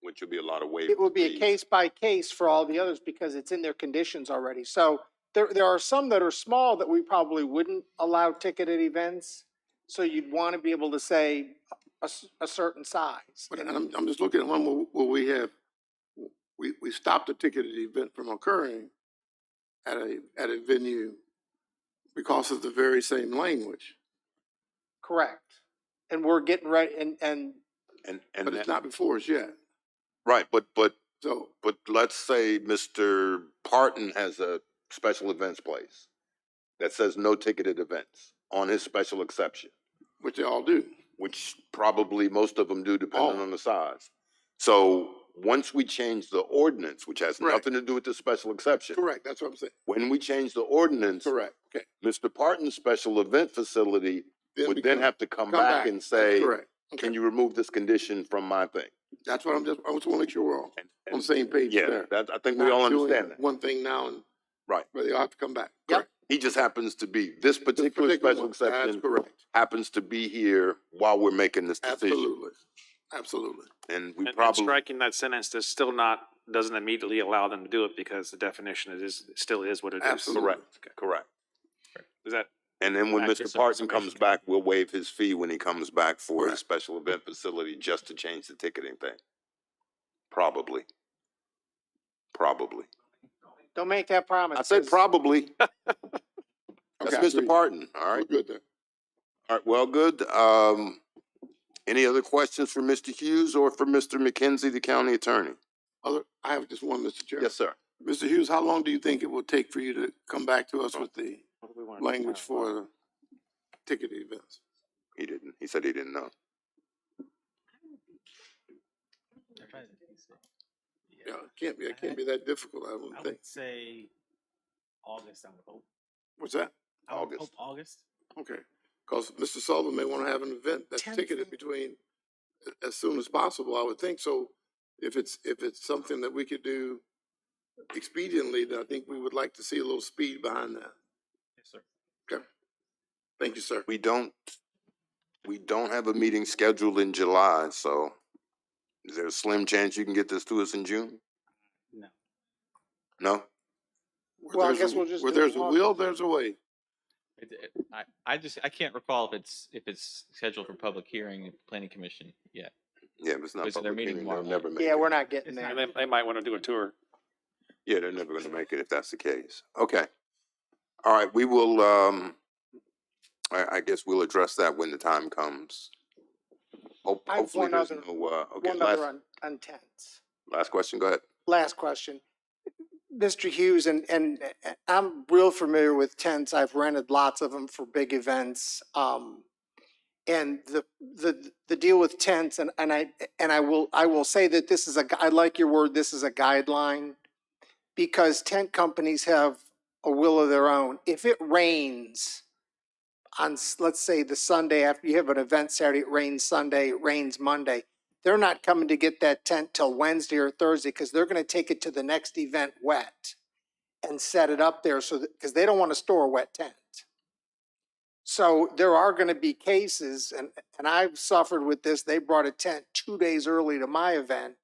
which would be a lot of waivers. It will be a fees. case by case for all the others because it's in their conditions already. So there, there are some that are small that we probably wouldn't allow ticketed events. So you'd want to be able to say a, s- a certain size. But I'm, I'm just looking at one where, where we have, we, we stopped a ticketed event from occurring at a, at a venue because of the very same language, Correct. And we're getting ready and, and And, but and, it's that- not before us yet. right, but, but, So, but let's say Mr. Parton has a special events place that says no ticketed events on his special exception. which they all do. which probably most of them do depending Oh. on the size. So once we change the ordinance, which has Correct. nothing to do with the special exception, Correct, that's what I'm saying. when we change the ordinance, Correct, okay. Mr. Parton's special event facility would then become- have to come come back back. and say, Correct, can you remove this condition from my thing? that's what I'm just, I just wanna make sure we're all And- on the and- same page Yeah, there. that, I think we Not all doing understand that. One thing now and. Right. But they'll have to come back. Yep. Correct. He just happens to be, this This particular special one, that's exception Correct, happens to be here while we're making this decision. absolutely, absolutely. And we And- and probably, Striking that sentence, does still not, doesn't immediately allow them to do it because the definition it is, still is what it is. Absolutely. correct, correct. Is that, And then when Access Mr. and Parson comes preservation. back, we'll waive his fee when he comes back for his Correct. special event facility just to change the ticketing thing. Probably. Probably. don't make that promise. I said 'cause probably. That's Okay, I Mr. agree. Parton, all We're right? good there. All right, well, good. Um, any other questions for Mr. Hughes or for Mr. McKenzie, the county attorney? Other, I have just one, Mr. Chair. Yes, sir. Mr. Hughes, how long do you think it will take for you to come back to us with the what do we want? language for the ticket events? He didn't. He said he didn't know. Yeah, it can't be, it can't be that difficult, I don't I think. would say August, I would hope. What's that? I would August. hope August. Okay, because Mr. Sullivan may want to have an event that's ticketed between a- as soon as possible, I would think. So if it's, if it's something that we could do expediently, then I think we would like to see a little speed behind that. Yes, sir. Thank you, sir. We don't, we don't have a meeting scheduled in July, so is there a slim chance you can get this to us in June? No. No? Where Well, I there's a- guess we'll just Where do it there's a tomorrow. will, there's a way. It, it, I, I just, I can't recall if it's, if it's scheduled for public hearing at the planning commission yet. Yeah, if it's not Is there a public meeting hearing, they'll tomorrow? never make it. Yeah, we're not getting It's there. not- They, they might want to do a tour. Yeah, they're never gonna make it if that's the case. Okay. All right, we will, um, I, I guess we'll address that when the time comes. Hope, I have hopefully one there's other- no, uh, okay, One other last, on, on tents. last question, go ahead. last question. Mr. Hughes, and, and eh, I'm real familiar with tents. I've rented lots of them for big events. Um, and the, the, the deal with tents and, and I, and I will, I will say that this is a, gu- I like your word, this is a guideline. Because tent companies have a will of their own. If it rains on, s- let's say the Sunday after you have an event Saturday, it rains Sunday, it rains Monday they're not coming to get that tent till Wednesday or Thursday because they're going to take it to the next event wet and set it up there so that, because they don't want to store a wet tent. So there are going to be cases, and, and I've suffered with this, they brought a tent two days early to my event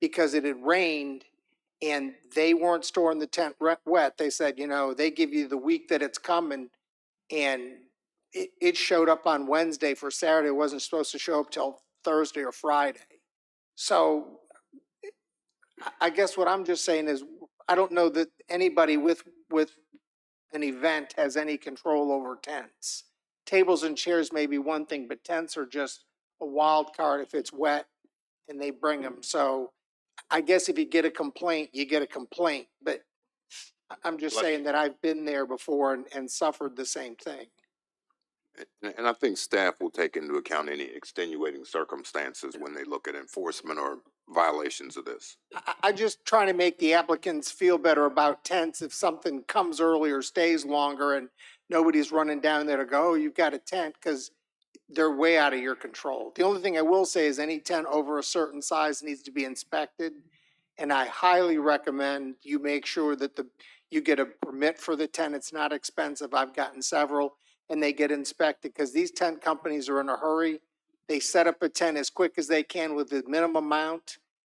because it had rained and they weren't storing the tent re- wet. They said, you know, they give you the week that it's coming and it, it showed up on Wednesday for Saturday. It wasn't supposed to show up till Thursday or Friday. So I- I guess what I'm just saying is, I don't know that anybody with, with an event has any control over tents. Tables and chairs may be one thing, but tents are just a wild card if it's wet and they bring them. So I guess if you get a complaint, you get a complaint, but I- I'm just Bless saying that I've been there before and, and suffered the same thing. And, and I think staff will take into account any extenuating circumstances when they look at enforcement or violations of this. I, I just trying to make the applicants feel better about tents if something comes early or stays longer and nobody's running down there to go, oh, you've got a tent, because they're way out of your control. The only thing I will say is any tent over a certain size needs to be inspected. And I highly recommend you make sure that the, you get a permit for the tent. It's not expensive. I've gotten several and they get inspected because these tent companies are in a hurry. They set up a tent as quick as they can with the minimum amount